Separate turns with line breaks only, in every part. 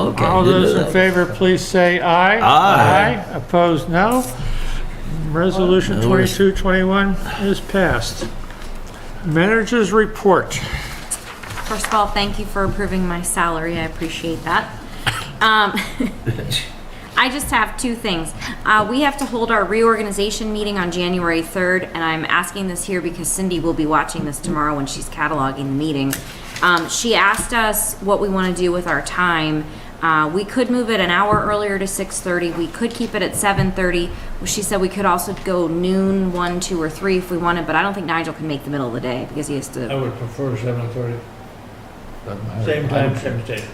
All
into
those in
that.
favor, please say aye.
Aye.
Aye. Opposed, no. Resolution 2221 is passed. Managers report.
First of all, thank you for approving my salary. I appreciate that. Um, I just have two things. Uh, we have to hold our reorganization meeting on January 3rd, and I'm asking this here because Cindy will be watching this tomorrow when she's cataloging the meeting. Um, she asked us what we want to do with our time. Uh, we could move it an hour earlier to 6:30. We could keep it at 7:30. She said we could also go noon, 1, 2, or 3 if we wanted, but I don't think Nigel can make the middle of the day because he has to
I would prefer seven thirty,
Doesn't matter.
same time, same day.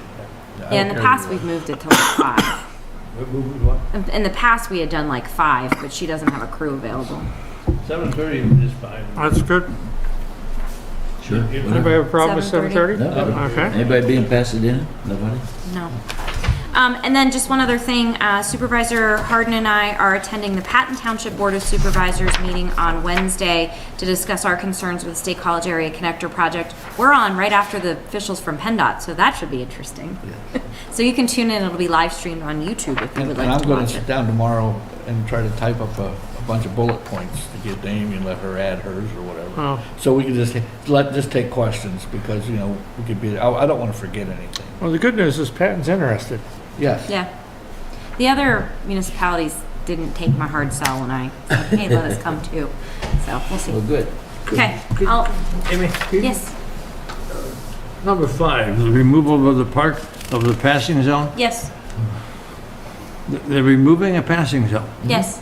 Yeah, in the past, we've moved it to like five. In- In the past, we had done like five, but she doesn't have a crew available.
Seven thirty is fine.
That's good.
Sure.
Anybody have a problem with 7:30?
7:30?
No.
Okay.
Anybody being Pasadena? Nobody?
No. Um, and then just one other thing, uh, Supervisor Harden and I are attending the Patton Township Board of Supervisors meeting on Wednesday to discuss our concerns with the State College Area Connector Project. We're on right after the officials from PennDOT, so that should be interesting. So you can tune in, it'll be live streamed on YouTube if you
And
would
and
like
I'm
to
gonna
watch it.
sit down tomorrow and try to type up a, a bunch of bullet points to get to Amy and let her add hers or whatever.
Oh,
So we can just, let, just take questions because, you know, we could be, I, I don't wanna forget anything.
Well, the good news is Patton's interested.
Yes,
Yeah. The other municipalities didn't take my hard sell when I said, hey, let us come too. So we'll
Well,
see.
good.
Okay, I'll,
Amy?
yes,
Number five, the removal of the park, of the passing zone.
yes,
They're removing a passing zone.
yes.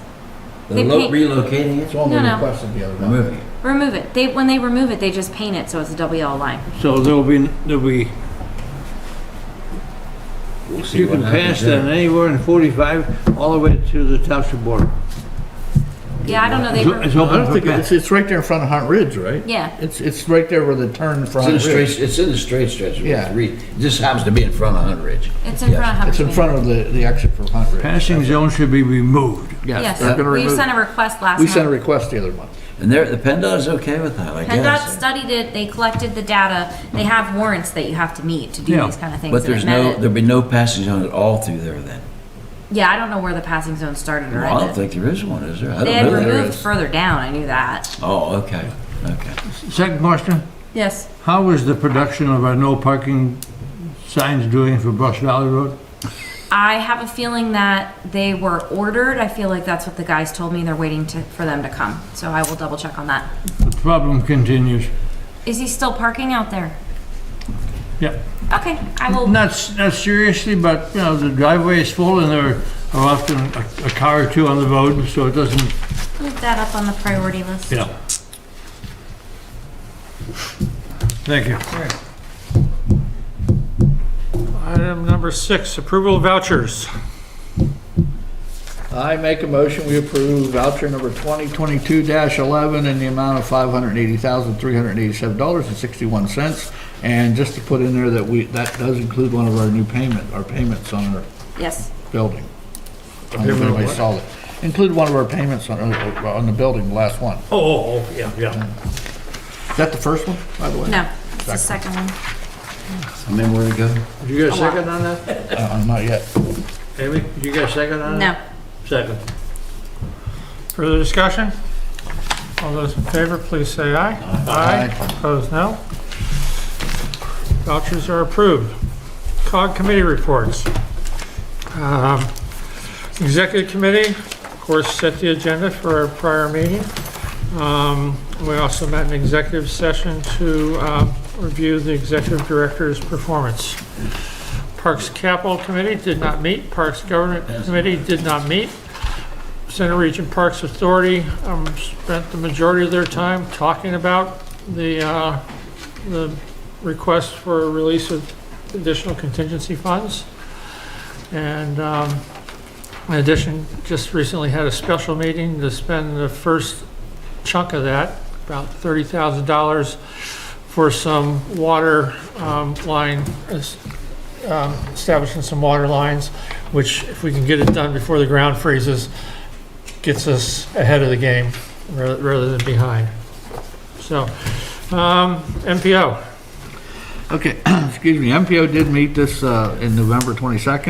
They're
They
lo-
paint-
relocating it?
it's only
No, no.
requested the other night.
Removing it.
Remove it. They, when they remove it, they just paint it so it's a double yellow line.
So there'll be, there'll be,
We'll see
you
what
can
happens
pass
there.
that anywhere in 45 all the way to the township border.
Yeah, I don't know, they,
It's
re-
I
open
don't
for
think,
pass.
it's, it's right there in front of Hunt Ridge, right?
yeah,
It's, it's right there where the turn for
It's in the
Hunt Ridge.
straight, it's in the straight stretch. of Route
Yeah.
three. It just happens to be in front of Hunt Ridge.
it's in front of
It's in
Humphrey.
front of the, the exit for Hunt Ridge.
Passing zone should be removed.
Yes,
they're gonna
we
remove
sent
it.
a request last
We sent a
month.
request the other month.
And there, the PennDOT is okay with that, I
PennDOT
guess.
studied it, they collected the data, they have warrants that you have to meet to do
Yeah.
these kind of things.
But
and it
there's
met
no,
it.
there'll be no passing zone at all through there then.
Yeah, I don't know where the passing zone started or
Well, I don't
ended.
think there is one, is there? I
They
don't
had
know there
removed
is.
further down, I knew that.
Oh, okay, okay.
Second question,
Yes.
how is the production of our no parking signs doing for Brush Valley Road?
I have a feeling that they were ordered. I feel like that's what the guys told me. They're waiting to, for them to come. So I will double check on that.
The problem continues.
Is he still parking out there?
Yeah.
Okay, I will.
Not, s- not seriously, but, you know, the driveway is full and there are often a, a car or two on the road, so it doesn't,
Move that up on the priority list.
you know. Thank you.
Item number six, approval of vouchers.
I make a motion, we approve voucher number 2022-11 in the amount of $580,387.61. And just to put in there that we, that does include one of our new payment, our payments on our
Yes.
building. I don't know if anybody saw it. Include one of our payments on, uh, on the building, the last one.
Oh, Oh, oh, yeah, yeah.
Is that the first one, by the way?
No, it's the second one.
I mean, where to go?
Did you get a second on that?
Uh, Not yet.
Amy, did you get a second on
No.
that? Second.
Further discussion? All those in favor, please say aye. Aye. Opposed, no. Vouchers are approved. COG committee reports. Um, Executive committee, of course, set the agenda for our prior meeting. Um, We also met in executive session to um, review the executive director's performance. Parks Capital Committee did not meet, Parks Government Committee did not meet. Center Region Parks Authority um, spent the majority of their time talking about the, uh, the request for release of additional contingency funds. And um, in addition, just recently had a special meeting to spend the first chunk of that, about $30,000 for some water um, line, es- um, establishing some water lines, which if we can get it done before the ground freezes, gets us ahead of the game ra- rather than behind. So, um, MPO.
Okay, excuse me, MPO did meet this uh, in November 22nd.